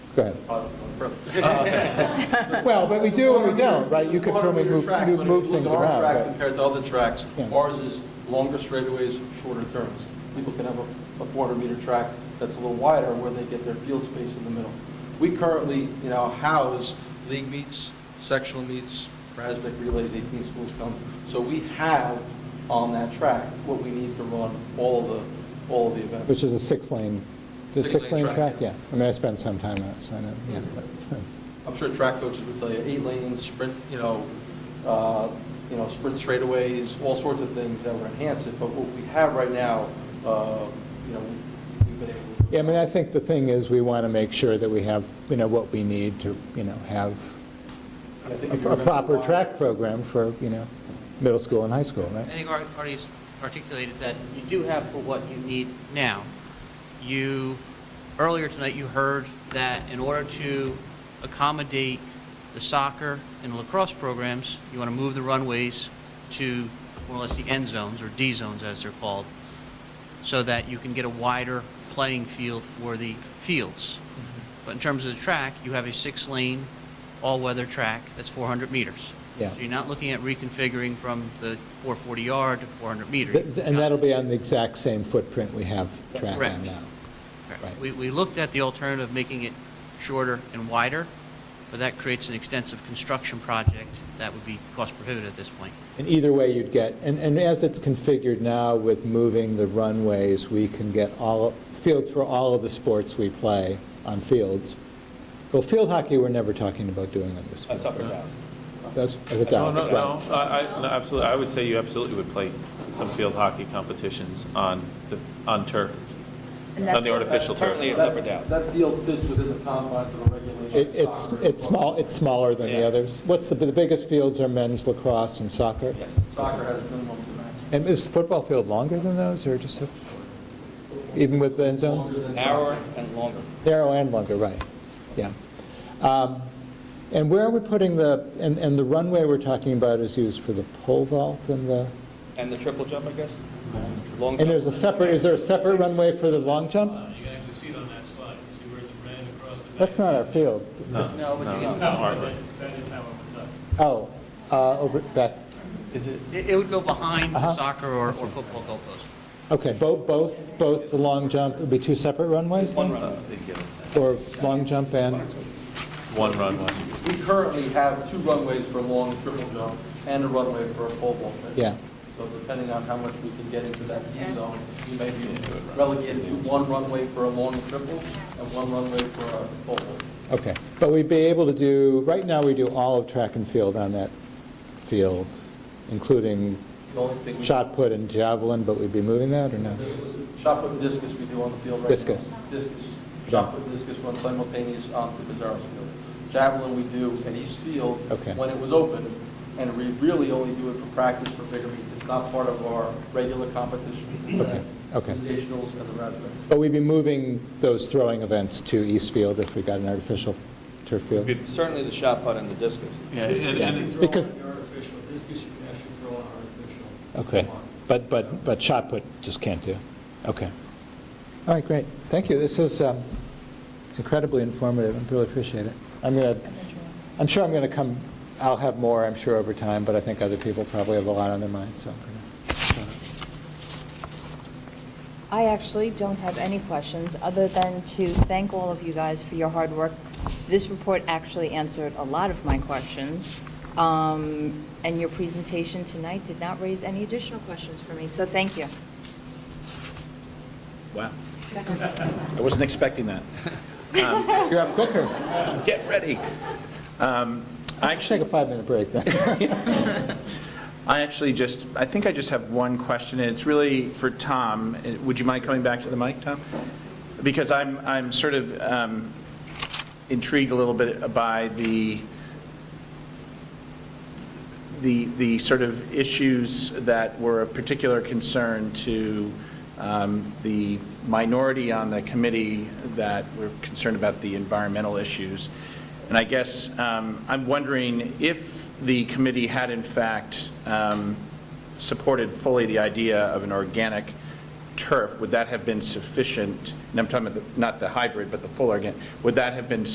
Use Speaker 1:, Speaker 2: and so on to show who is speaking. Speaker 1: Go ahead. Well, but we do and we don't, right? You could probably move, move move things around,
Speaker 2: Our track
Speaker 1: but,
Speaker 2: compared to other tracks,
Speaker 1: Yeah.
Speaker 2: ours is longer straightaways, shorter turns. People can have a 400-meter track that's a little wider where they get their field space in the middle. We currently, you know, house league meets, sectional meets, Rasmussen relays, 18 schools come. So we have on that track what we need to run all the, all the events.
Speaker 1: which is a six-lane, the
Speaker 2: Six-lane
Speaker 1: six-lane
Speaker 2: track,
Speaker 1: track,
Speaker 2: yeah.
Speaker 1: yeah. I mean, I spent some time on it, so I know, yeah.
Speaker 2: I'm sure track coaches would tell you, eight lanes, sprint, you know, uh, you know, sprint straightaways, all sorts of things that would enhance it, but what we have right now, uh, you know, we've been able to.
Speaker 1: Yeah, I mean, I think the thing is, we want to make sure that we have, you know, what we need to, you know, have
Speaker 2: I think
Speaker 1: a
Speaker 2: if you
Speaker 1: a
Speaker 2: remember
Speaker 1: proper
Speaker 2: why-
Speaker 1: track program for, you know, middle school and high school,
Speaker 3: I
Speaker 1: right?
Speaker 3: think Art already articulated that you do have for what you need now. You, earlier tonight, you heard that in order to accommodate the soccer and lacrosse programs, you want to move the runways to more or less the end zones, or D zones as they're called, so that you can get a wider playing field for the fields.
Speaker 1: Mm-hmm.
Speaker 3: But in terms of the track, you have a six-lane, all-weather track that's 400 meters.
Speaker 1: Yeah.
Speaker 3: So you're not looking at reconfiguring from the 440 yard to 400 meter.
Speaker 1: Th- th- And that'll be on the exact same footprint we have track on
Speaker 3: Correct.
Speaker 1: now.
Speaker 3: Correct.
Speaker 1: right.
Speaker 3: We, we looked at the alternative, of making it shorter and wider, but that creates an extensive construction project that would be cost prohibitive at this point.
Speaker 1: And either way you'd get, and, and as it's configured now with moving the runways, we can get all, fields for all of the sports we play on fields. Well, field hockey, we're never talking about doing on this field.
Speaker 4: That's up or
Speaker 1: right?
Speaker 4: down?
Speaker 1: That's, as a
Speaker 5: No,
Speaker 1: down,
Speaker 5: no,
Speaker 1: right.
Speaker 5: no, I, I- no, absolutely, I would say you absolutely would play some field hockey competitions on the, on turf,
Speaker 6: And
Speaker 5: on
Speaker 6: that's,
Speaker 5: the artificial
Speaker 4: Currently,
Speaker 5: turf.
Speaker 4: it's up or down.
Speaker 2: That field fits within the confines of a regulation.
Speaker 1: It- It's,
Speaker 2: soccer.
Speaker 1: it's small, it's smaller than the
Speaker 4: Yeah.
Speaker 1: others. What's the, the biggest fields are men's lacrosse and soccer?
Speaker 4: Yes.
Speaker 2: Soccer has minimums and maximums.
Speaker 1: And is the football field longer than those, or just, a- even with the end zones?
Speaker 2: Longer than soccer.
Speaker 4: Narrower and longer.
Speaker 1: Narrow and longer, right, yeah. Um, And where are we putting the, and, and the runway we're talking about is used for the pole vault and the,
Speaker 4: And the triple jump, I guess? Long
Speaker 1: and there's a
Speaker 4: jump.
Speaker 1: separate, is there a separate runway for the long jump?
Speaker 7: Uh, You can actually see it on that slide, You see where it's ran across the back.
Speaker 1: That's not our field.
Speaker 5: No, no,
Speaker 4: but you
Speaker 5: no,
Speaker 4: can-
Speaker 5: it's not.
Speaker 7: That that is how it was done.
Speaker 1: Oh, uh, over, back,
Speaker 5: Is it,
Speaker 3: It, it would go behind
Speaker 1: Uh-huh.
Speaker 3: the soccer or, or football goalpost.
Speaker 1: okay, both, both, both the long jump, would be two separate runways?
Speaker 4: One
Speaker 1: then?
Speaker 4: run.
Speaker 1: Or long jump and,
Speaker 5: one runway?
Speaker 2: We currently have two runways for long triple jump and a runway for a pole vault.
Speaker 1: yeah.
Speaker 2: So depending on how much we can get into that D zone, we may be relegated to one runway for a long triple and one runway for a pole vault.
Speaker 1: Okay, but we'd be able to do, right now, we do all of track and field on that field, including
Speaker 2: The only thing we-
Speaker 1: shot put and javelin, but we'd be moving that or no?
Speaker 2: Shot put and discus we do on the field right now.
Speaker 1: Discus.
Speaker 2: Discus. Shot put and discus run simultaneous on the Bizarro's field. Javelin we do at East Field.
Speaker 1: Okay.
Speaker 2: When it was open, and we really only do it for practice for bigger meets. It's not part of our regular competition.
Speaker 1: Okay, okay.
Speaker 2: Invitationals and the Raspberry.
Speaker 1: But we'd be moving those throwing events to East Field if we got an artificial turf field?
Speaker 5: Good.
Speaker 4: Certainly the shot put and the discus.
Speaker 5: Yeah, and-
Speaker 7: You
Speaker 5: and
Speaker 7: can
Speaker 1: Because-
Speaker 7: throw on the artificial, discus, you can actually throw on artificial.
Speaker 1: Okay, but, but, but shot put just can't do? Okay. All right, great. Thank you. This is um, incredibly informative. I really appreciate it. I'm going to, I'm sure I'm going to come, I'll have more, I'm sure, over time, but I think other people probably have a lot on their mind, so I'm going to shut up.
Speaker 6: I actually don't have any questions, other than to thank all of you guys for your hard work. This report actually answered a lot of my questions, um, and your presentation tonight did not raise any additional questions for me, so thank you.
Speaker 8: Wow. I wasn't expecting that.
Speaker 1: uh, You're up quicker.
Speaker 8: Get ready. Um, I
Speaker 1: Let's take
Speaker 8: actually,
Speaker 1: a five-minute break then.
Speaker 8: I actually just, I think I just have one question, and it's really for Tom. Uh, Would you mind coming back to the mic, Tom? Because I'm, I'm sort of um, intrigued a little bit by the, the, the sort of issues that were of particular concern to um, the minority on the committee that were concerned about the environmental issues. And I guess um, I'm wondering if the committee had in fact um, supported fully the idea of an organic turf, would that have been sufficient? And I'm talking about the- not the hybrid, but the full organic. Would that have been